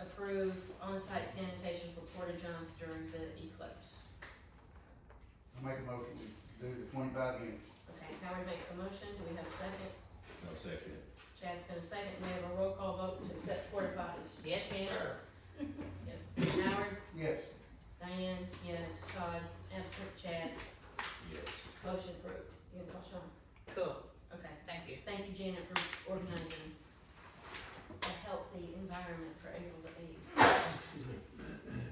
approve on-site sanitation for Porta Johns during the eclipse. I make a motion to do the twenty-five units. Okay, Howard makes the motion, do we have a second? I'll second. Chad's gonna second, we have a roll call vote to accept porta potties. Yes, Hannah? Yes. Howard? Yes, Diane? Yes. Todd? Absent. Chad? Yes. Motion approved. You can call Sean. Cool, Okay, thank you. thank you Janet for organizing a healthy environment for April the eighth.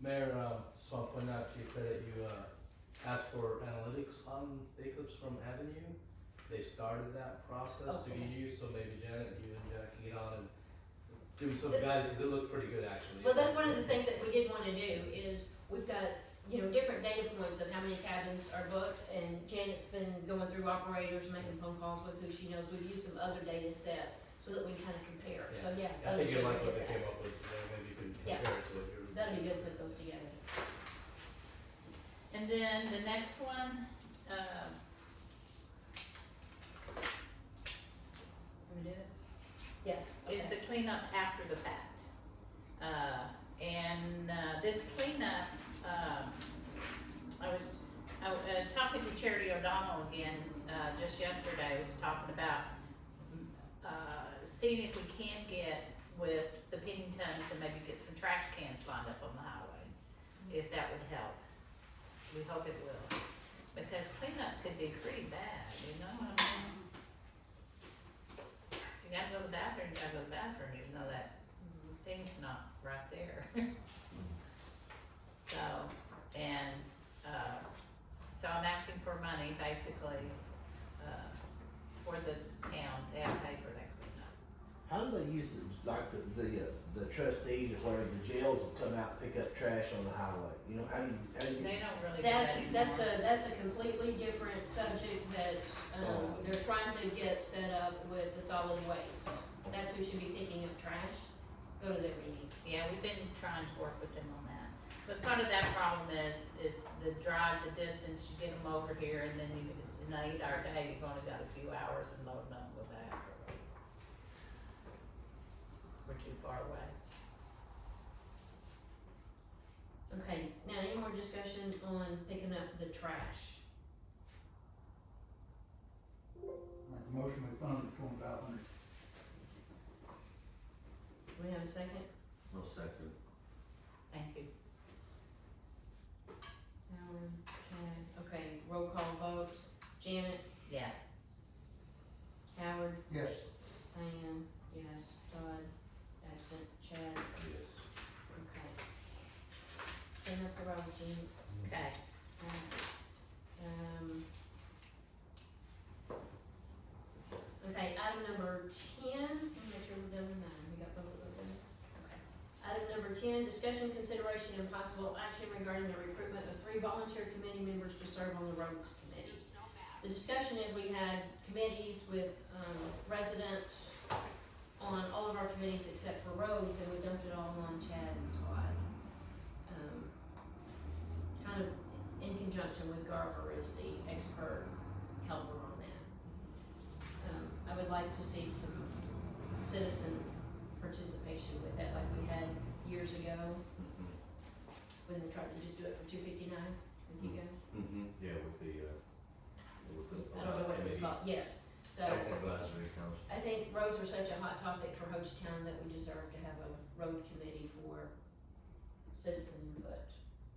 Mayor, uh, just want to point out to your credit, you uh, asked for analytics on the Eclipse from Avenue. They started that process to be used, so maybe Janet, you and Jack can get on and give me some That's- guidance because it looked pretty good actually. Well, that's one of the things that we did wanna do is we've got, you know, different data points of how many cabins are booked and Janet's been going through operators, making phone calls with who she knows. We've used some other data sets so that we can kinda compare. So, yeah. I that'll be think you good to like get what they that. came up with, so maybe you can Yeah. compare it to what you're. That'd be good, to put those together. And then the next one, uh, Can we do it? Yeah. is the cleanup after the fact. Uh, and, uh, this cleanup, um, I was, I was uh, talking to Charity O'Donnell again, uh, just yesterday, was talking about, mm, uh, seeing if we can get with the Penningtons and maybe get some trash cans lined up on the highway, if that would help. We hope it will, because cleanup could be pretty bad, you know what I mean? You gotta go to the bathroom, you gotta go to the bathroom, even though that thing's not right there. So, and, uh, so I'm asking for money basically, uh, for the town to have pay for that cleanup. How do they use the, like the, the, uh, the trustees or whatever, the jails will come out and pick up trash on the highway? You know, how do you, how do you, They don't really do that That's, anymore. that's a, that's a completely different subject that, um, Oh. they're trying to get set up with the solid waste. That's who should be picking up trash, go to their meeting. Yeah, we've been trying to work with them on that. But part of that problem is, is the drive, the distance, you get them over here and then you, in an eight hour day, you've only got a few hours and load them up with that. We're too far away. Okay, now any more discussion on picking up the trash? make a motion we fund the twenty-five hundred. Do we have a second? I'll second. Thank you. Howard, Chad, okay, roll call vote, Janet, Yeah, Howard, Yes, Diane, yes, Todd, absent, Chad, Yes. okay. Clean up the road, Jean. okay. Um, Okay, item number ten, let me make sure we're done with nine, we got both of those in. Okay. Item number ten, discussion, consideration, and possible action regarding the recruitment of three volunteer committee members to serve on the roads committee. The discussion is we had committees with, um, residents on all of our committees except for roads, and we dumped it all on Chad and Todd. Um, kind of in conjunction with Garber as the expert helper on that. Um, I would like to see some citizen participation with that, like we had years ago, when they tried to just do it for two fifty-nine with you guys. Mm-hmm, yeah, with the, uh, with Mm-hmm. the. I don't know what it was uh, called, yes, so. maybe Advisory council. I think roads are such a hot topic for Ho Chi Town that we deserve to have a road committee for citizen input.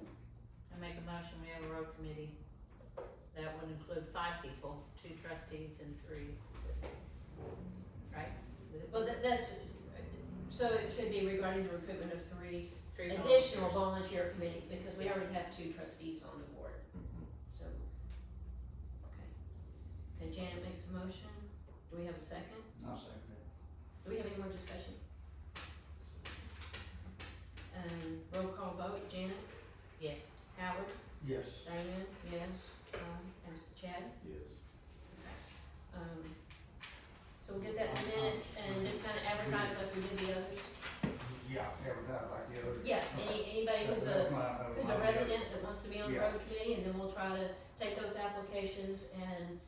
I make a motion, we have a road committee that would include five people, two trustees and three citizens. Right? Would it be Well, that, that's, so it should be regarding the recruitment of three three additional volunteers? volunteer committee, because we already have two trustees on the board, Mhm. so. Okay. Okay, Janet makes a motion. Do we have a second? I'll second that. Do we have any more discussion? Um, roll call vote, Janet, Yes, Howard, Yes, Diane, yes, Tom, and Chad. Yes. Um, so we'll get that in minutes and just kinda advertise like we did the others. yeah, every time like the other. Yeah, any, anybody who's a, who's a resident that wants to be on the road committee, and then we'll try to take those applications and